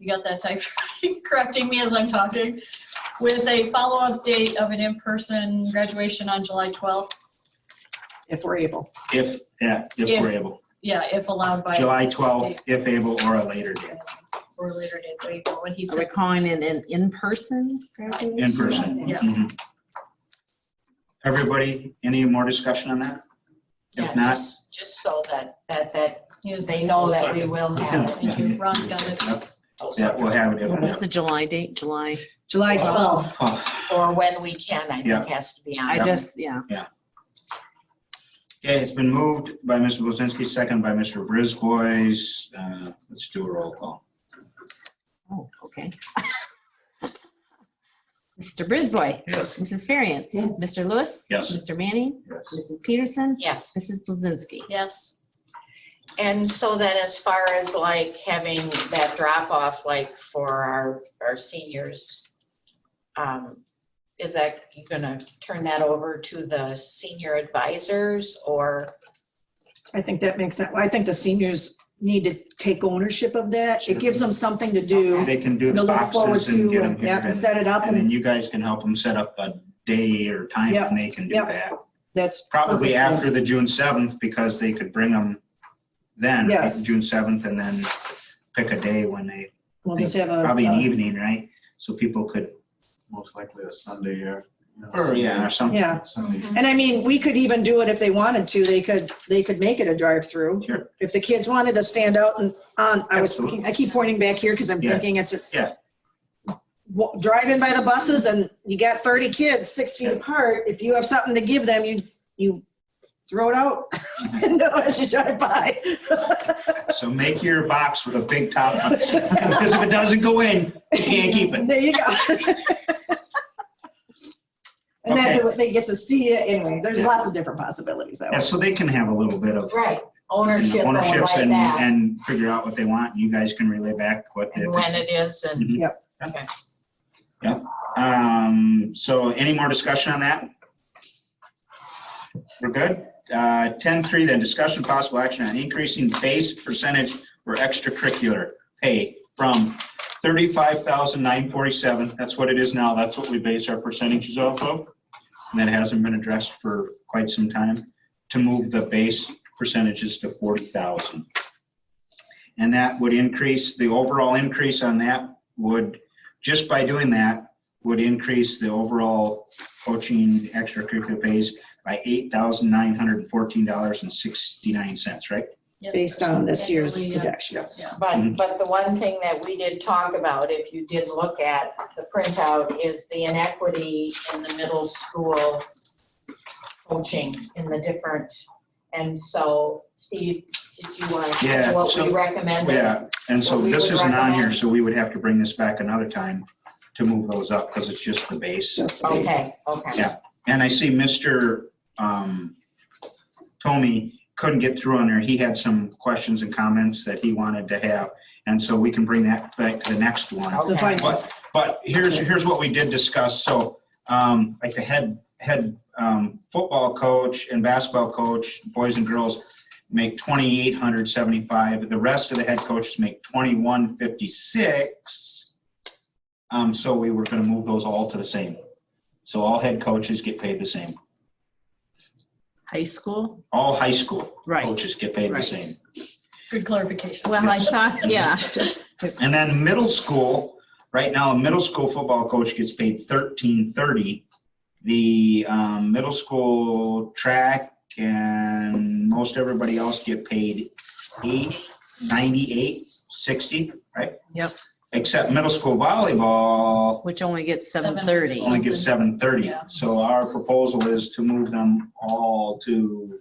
you got that type correcting me as I'm talking, with a follow-up date of an in-person graduation on July 12th. if we're able. If, yeah, if we're able. Yeah, if allowed by. July twelfth 12th, if able, or a later date, Or later date, there you go, what he Are we said. calling it an in-person graduation? in person. Yeah. Mhm. Everybody, any more discussion on that? If Yeah, not, just- Just so that, that, that Yes, they know that we will have it. Thank you, Ron's got it. yeah, we'll have it. What's yeah. the July date? July? July Wow. 12th. Oh, Or when we can, I Yeah. think has to be on. I Yeah. just, yeah. Okay, it's been moved by Mr. Blazinski, second by Mr. Brisbois. Uh, Let's do a roll call. Oh, okay. Mr. Brisboy. Yes. Mrs. Ferriant. Yes. Mr. Lewis. Yes. Mr. Manning. Yes. Mrs. Peterson. Yes, Mrs. Blazinski. Yes, and so then as far as like having that drop off, like for our, our seniors, um, is that, you gonna turn that over to the senior advisors or? I think that makes sense. I think the seniors need to take ownership of that. It gives them something to do, They can do to the look forward boxes and to, get them and here. yeah, and And set it up, and then and you guys can help them set up a day or time Yep, and they can do yep. that. that's. Probably perfect. after the June 7th because they could bring them then, pick Yes. June 7th, and then pick a day when they, We'll just have Uh, a. probably an a- evening, right? So people could, most likely a Sunday after. or yeah, or something. Yeah, Sunday. and I mean, we could even do it if they wanted to. They could, they could make it a drive-through. Sure. If the kids wanted to stand out and on, I was, Absolutely. thinking- I keep pointing back here because I'm Yeah. thinking it's. a- Yeah. Wa- Driving by the buses and you got 30 kids, six feet Yeah. apart. If you have something to give them, you, you throw it out. No, as you drive by. So make your box with a big top on it. Because if it doesn't go in, you can't keep it. There you go. And then they- they get to see it anyway. There's Yeah. lots of different possibilities. that Yeah, so they can have a little bit of Right, you ownership know, or ownerships like and, that, and figure out what they want. You guys can relay back what they and when it is and. Mhm. Yep. Okay. Yep. Um, so any more discussion on that? We're good. Uh, ten three, then discussion possible action on increasing base percentage for extracurricular pay from thirty-five thousand nine forty-seven. That's what it is now. That's what we base our percentages off of. And that hasn't been addressed for quite some time to move the base percentages to forty thousand. And that would increase, the overall increase on that would just by doing that would increase the overall coaching extracurricular pays by eight thousand nine hundred and fourteen dollars and sixty-nine cents, right? yes. Based on this year's Definitely, yeah. projections. Yeah. Mhm. But, but the one thing that we did talk about, if you did look at the printout, is the inequity in the middle school coaching in the different, and so, Steve, did you want to Yeah, know what so- we recommended? Yeah, and so What we this would isn't on here, recommend. so we would have to bring this back another time to move those up because it's just the base. Just- Okay, okay. Yeah. And I see Mr. um, Tomey couldn't get through on there. He had some questions and comments that he wanted to have. And so we can bring that back to the next one. The Okay. finance. But here's, here's what we did discuss, so, um, like the head, head, um, football coach and basketball coach, boys and girls make twenty-eight hundred seventy-five, the rest of the head coaches make twenty-one fifty-six. Um, so we were gonna move those all to the same. So all head coaches get paid the same, High school? all high school Right. coaches get paid the Right. same. Good clarification. Well, I Oh, Yes. thought, yeah. And then middle school, right now, a middle school football coach gets paid thirteen thirty. The um, middle school track and most everybody else get paid eight ninety-eight sixty, right? Yep. Except middle school volleyball Which only gets Seven. seven thirty. only gets seven thirty. Yeah. So our proposal is to move them all to,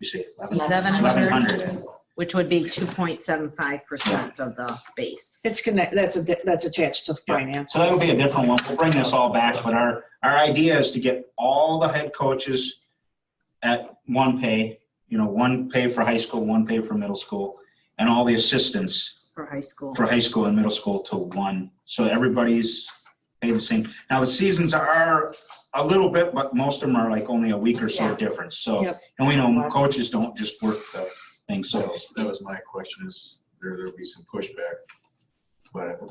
you say, eleven 1100, hundred. which would be two point seven five percent of the base. It's connect, that's, a that's attached to Yeah. finance. So that'll be a different one. We'll bring this all back, but our, our idea is to get all the head coaches at one pay, you know, one pay for high school, one pay for middle school, and all the assistants for high school. for high school and middle school to one. So everybody's paid the same. Now, the seasons are a little bit, but most of them are like only a week or so Yeah. difference, so. Yep. And we know coaches don't just work the thing, So that so, was- that was my question is, there, there'll be some pushback but I- but